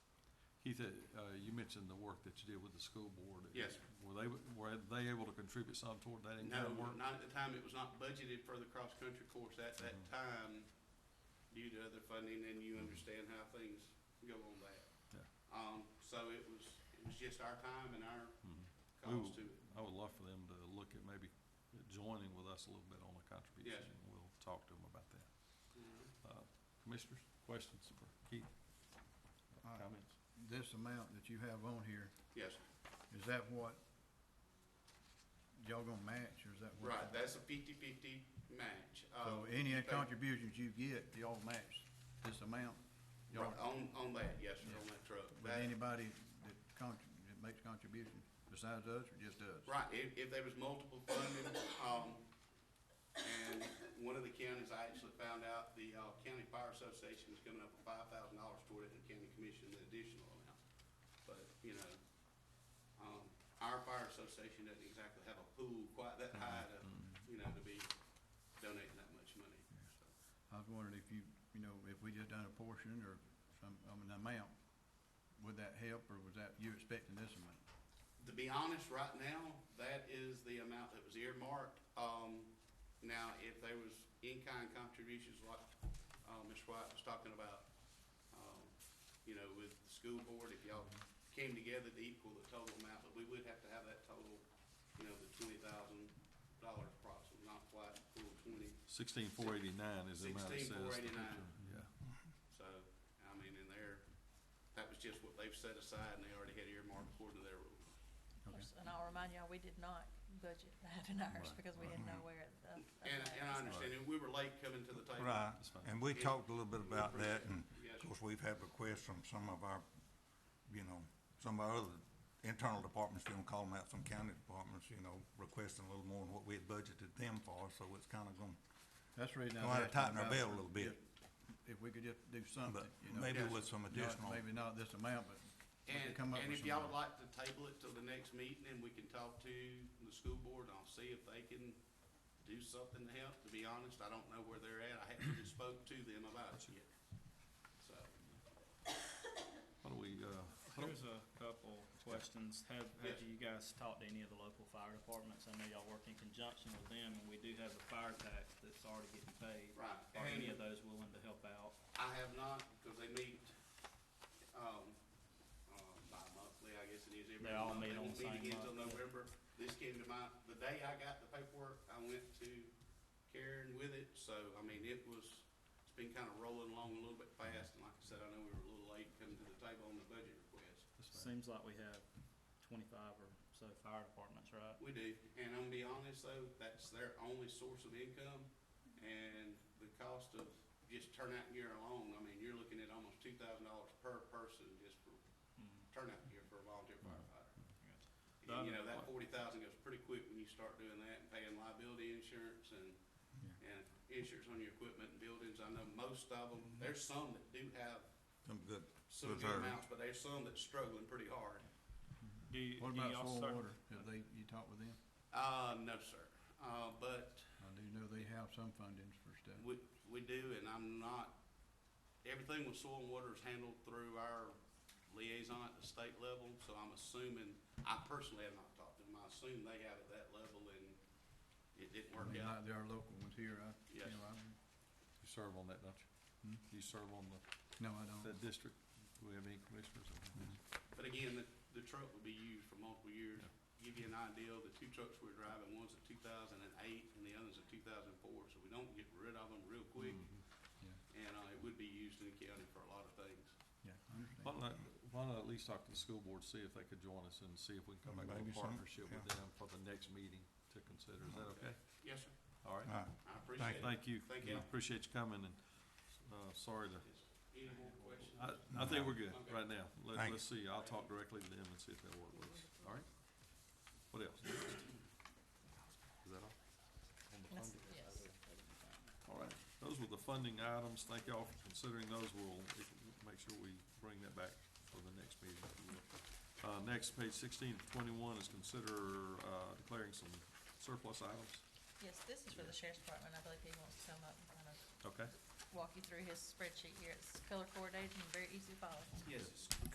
Keith, uh, you mentioned the work that you did with the school board. Yes, sir. Were they, were they able to contribute some toward that No, in-kind work? not at the time, it was not budgeted for the cross-country course at that Mhm. time due to other funding, and you understand how things go on that. Yeah. Um, so it was, it was just our time and our Mhm. We will- cost to it. I would love for them to look at maybe joining with us a little bit on the contribution. and We'll talk to them about that. Uh, Commissioners, questions for Keith? All right. Comments? This amount that you have on here, Yes, is that what y'all gonna match, or is that what? right, that's a fifty-fifty match. So Uh, any you pay- contributions you get, y'all match this amount? Y'all- Right, on, on that, yes, sir, on that truck. With That- anybody that contri- that makes contribution besides us, or just us? Right, if, if there was multiple funding, um, and one of the counties, I actually found out, the, uh, County Fire Association is coming up with five thousand dollars toward it, and the county commission an additional amount. But, you know, um, our fire association doesn't exactly have a pool quite that high to, you know, to be donating that much money, so. I was wondering if you, you know, if we just done a portion or some, I mean, amount, would that help, or was that, you expecting this amount? To be honest, right now, that is the amount that was earmarked. Um, now, if there was in-kind contributions like, uh Ms. White was talking about, um, you know, with the school board, if y'all came together to equal the total amount, but we would have to have that total, you know, the twenty thousand dollars approximately, not quite full twenty. Sixteen four eighty-nine is the amount it says. 16,489. Yeah. So, I mean, in there, that was just what they've set aside and they already had earmarked according to their rules. Okay. Yes, And I'll remind y'all, we did not budget that in ours Right, because we right. didn't know where the. And, and I understand, and we were late coming to the table. Right, That's fine. and we Yeah. talked a little bit We about that, appreciate and it. Yes, of course, we've had requests from some of our, you know, some of our other internal departments, you know, calling out some county departments, you know, requesting a little more than what we had budgeted them for, so it's kind of going, That's the reason I Gonna was have to tighten asking our about. belt a little bit. just- If we could just do something, but you know? maybe yes. with some Not- additional. Maybe not this amount, but we And, could come up and if with y'all some- would like to table it till the next meeting, and we can talk to the school board, and I'll see if they can do something to help, to be honest, I don't know where they're at, I haven't really spoke to them about it yet. So, Why don't we, uh, why don't- There's a couple questions. Have, have Yes. you guys talked to any of the local fire departments? I know y'all work in conjunction with them, and we do have a fire tax that's already getting paid. right, Are any of and those willing to help out? I have not, because they meet, um, uh, bi-monthly, I guess it is every month. They all meet on won't the same Meet again till month, yeah. November, this came to mind, the day I got the paperwork, I went to Karen with it, so, I mean, it was, it's been kind of rolling along a little bit fast, and like I said, I know we were a little late coming to the table on the budget request. that's fine. Seems like we have twenty-five or so fire departments, right? We do, and I'm gonna be honest though, that's their only source of income, and the cost of just turnout gear alone, I mean, you're looking at almost two thousand dollars per person just for Mm. turnout gear for a volunteer firefighter. Gotcha. And, you know, that forty thousand goes pretty quick when you start doing that and paying liability insurance and, and insurance on your equipment and buildings. I know most of them, there's some that do have Some good, some good Reserve. amounts, but there's some that's struggling pretty hard. Do you, What do about y'all soil start- water? Have they, you talked with them? Uh, no, sir. Uh, but I do know they have some fundings for stuff. We, we do, and I'm not, everything with soil and water is handled through our liaison at the state level, so I'm assuming, I personally have not talked to them, I assume they have at that level and it didn't I work mean, out. like there are local ones here, I, you Yes. know, I, You serve on that, don't Hmm? you? You serve on the, no, I don't. that district? Do we have any commissioners? Hmm. on But again, the, the truck would be used for multiple years. Give you an idea, the two trucks we're driving, one's a two thousand and eight and the other's a two thousand and four, so we don't get rid of them real that? quick. Mhm. And, uh, it would be used in the county for a lot of things. Yeah, I understand. Why not, why not at least talk to the school board, see if they could join us and see if we can come back with a Maybe some, partnership with yeah. them for the next meeting to consider. Is that okay? Yes, sir, All right. right. I appreciate it. Thank you. Thank you. Appreciate you coming and, uh, sorry to, Yes. Any more questions? I, I think we're good Okay. right now. Let, Thank let's see, I'll talk directly to them and see if they'll work with us. All right? What else? Is that all? On the funding? Yes. All right, those were the funding items. Thank y'all for considering those. We'll make sure we bring that back for the next meeting. if you will. Uh, next, page sixteen to twenty-one is consider, uh, declaring some surplus items. Yes, this is for the sheriff's department. I believe he wants to come up and kind of Okay? walk you through his spreadsheet here. It's color coordinated and very easy to follow. Yes, it's